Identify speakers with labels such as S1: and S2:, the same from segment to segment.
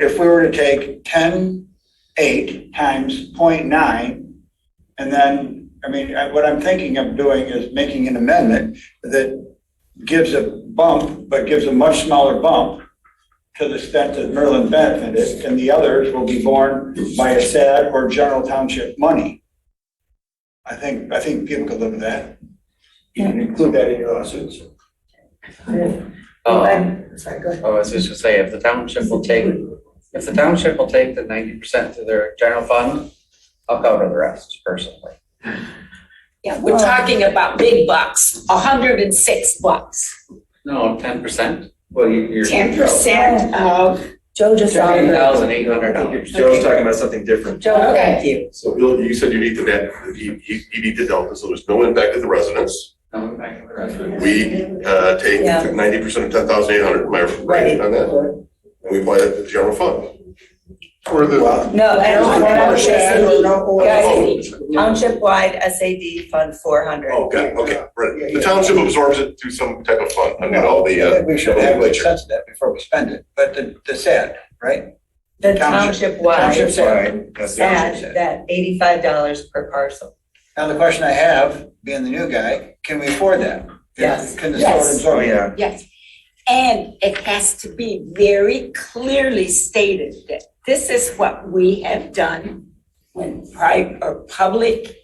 S1: If we were to take ten, eight times point nine, and then, I mean, I- what I'm thinking of doing is making an amendment that gives a bump, but gives a much smaller bump to the extent that Merlin benefited, and the others will be borne by a SAD or general township money. I think, I think people could live with that. You can include that in your lawsuits.
S2: Oh, I
S3: Um, Sorry, go ahead.
S2: was just gonna say, if the township will take, if the township will take the ninety percent to their general fund, I'll cover the rest personally.
S4: Yeah, we're talking about big bucks, a hundred and six bucks,
S2: No, ten percent? Well, you- you're.
S4: ten percent of,
S3: Joe just
S2: Fifteen
S3: offered.
S2: thousand eight hundred dollars.
S5: Joe's talking about something different.
S3: Joe, thank you.
S6: So Bill, you said you need the net, you, you you need the delta, so there's no impact to the residents.
S2: Coming back to the rest of it.
S6: We, uh, take
S3: Yeah.
S6: ninety percent of ten thousand eight hundred, am I right on that? And we apply that to the general fund. Or the,
S3: No, I don't, I don't SAD.
S6: oh,
S3: Guys, township-wide SAD Fund four hundred.
S6: oh, got it, okay, right. The township absorbs it through some type of fund, I mean, all the,
S1: I
S6: uh,
S1: think We should have a sense of that before we spend it, but the, the SAD, right?
S3: The
S1: Township-
S3: township-wide,
S1: Township SAD.
S3: that, that eighty-five dollars per parcel.
S1: Now, the question I have, being the new guy, can we afford that?
S3: Yes.
S1: Can the store
S4: Yes.
S1: absorb it?
S4: yes. And it has to be very clearly stated that this is what we have done when private or public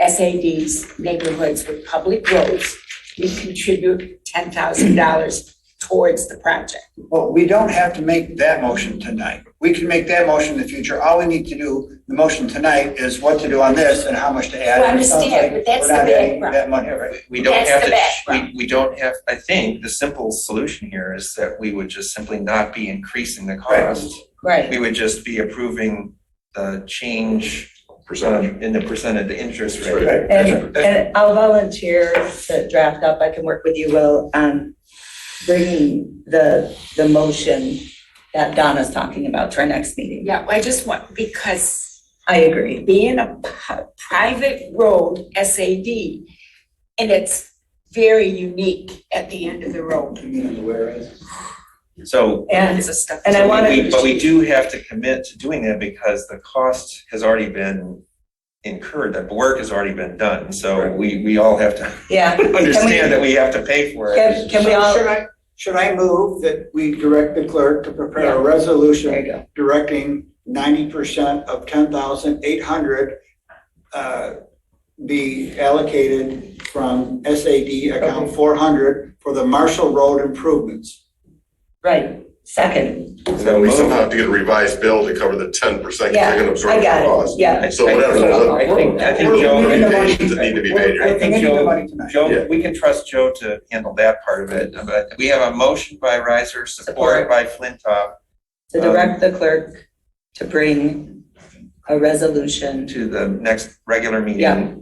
S4: SADs, neighborhoods with public roads, we contribute ten thousand dollars towards the project.
S1: Well, we don't have to make that motion tonight. We can make that motion in the future. All we need to do, the motion tonight is what to do on this and how much to add.
S4: Well, I understand,
S1: It sounds like
S4: but that's
S1: we're not
S4: the
S1: adding
S4: background.
S1: That money, right?
S5: We don't
S4: That's
S5: have
S4: the
S5: to,
S4: background.
S5: we, we don't have, I think, the simple solution here is that we would just simply not be increasing the cost.
S3: Right.
S5: We would just be approving the change um,
S6: percentage.
S5: in the percent of the interest
S6: Right.
S5: rate.
S3: And, and I'll volunteer to draft up, I can work with you, Will, on bringing the, the motion that Donna's talking about to our next meeting.
S4: Yeah, I just want, because
S3: I agree.
S4: being a pu- private road SAD, and it's very unique at the end of the road.
S5: So
S3: And,
S4: It's a stuff.
S3: And I
S5: So we-
S3: wanna-
S5: we- But we do have to commit to doing that because the cost has already been incurred, that work has already been done. So we, we all have to
S3: yeah,
S5: understand that we that we have to pay for it.
S3: can, can we all,
S1: Should I, should I move that we direct the clerk to prepare a resolution
S3: there you go.
S1: directing ninety percent of ten thousand eight hundred uh, be allocated from SAD account four hundred for the Marshall Road improvements.
S3: Right, second.
S6: And then we somehow have to get a revised bill to cover the ten percent, because
S3: Yeah,
S6: they're gonna
S3: I
S6: absorb the
S3: got it.
S6: cost.
S3: Yeah.
S6: So whatever,
S5: I think, I think Joe,
S6: That need to be made.
S5: I think Joe-
S6: Yeah.
S5: Joe, we can trust Joe to handle that part of it. But we have a motion by Riser,
S3: Support.
S5: support by Flintoff
S3: To direct the clerk to bring a resolution
S5: to the next regular
S3: Yeah.
S5: meeting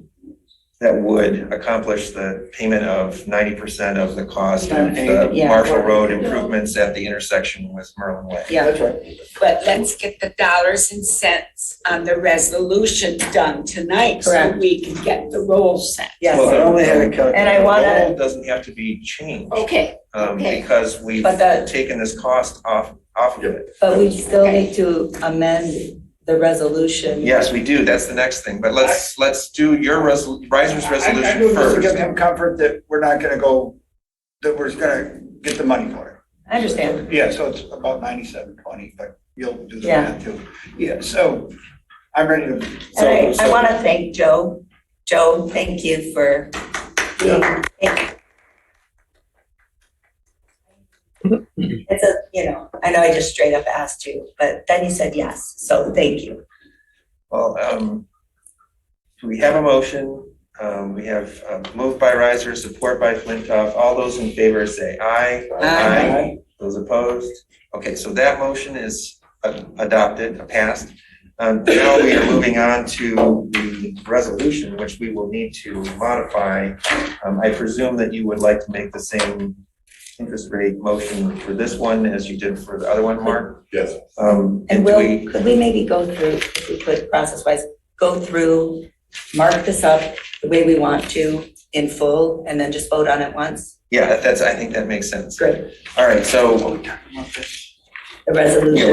S5: that would accomplish the payment of ninety percent of the cost of the
S3: Yeah.
S5: Marshall Road improvements at the intersection with Merlin Way.
S3: Yeah.
S1: That's right.
S4: But let's get the dollars and cents on the resolution done tonight so
S3: Correct.
S4: we can get the roll set.
S3: Yes, And I wanna- Oh,
S5: The goal doesn't have to be changed,
S4: Okay,
S5: um,
S4: okay.
S5: because we've
S3: But the-
S5: taken this cost off, off of it.
S3: but we still need to amend the resolution.
S5: Yes, we do, that's the next thing, but let's, let's do your resol, Riser's
S1: I
S5: resolution
S1: knew this to give
S5: first.
S1: him comfort that we're not gonna go, that we're gonna get the money for
S3: I understand.
S1: it. Yeah, so it's about ninety-seven twenty, but you'll do the
S3: Yeah.
S1: math too. Yeah, so I'm ready to
S3: And
S5: So-
S3: I, I
S5: so-
S3: want to thank Joe. Joe, thank you for being. It's a, you know, I know I just straight up asked you, but then you said yes, so thank you.
S5: Well, um, we have a motion, um, we have, uh, moved by Riser, support by Flintoff, all those in favor say aye.
S3: Aye.
S5: Those opposed? Okay, so that motion is uh, adopted, passed. Um, Now we are moving on to the resolution, which we will need to modify. Um, I presume that you would like to make the same interest rate motion for this one as you did for the other one, Mark?
S6: Yes.
S5: Um,
S3: And
S5: do
S3: Will, could we maybe go through, if we could, process-wise, go through, mark this up the way we want to in full, and then just vote on it once?
S5: Yeah, that's, I think that makes sense.
S3: Great.
S5: All right, so
S3: The resolution.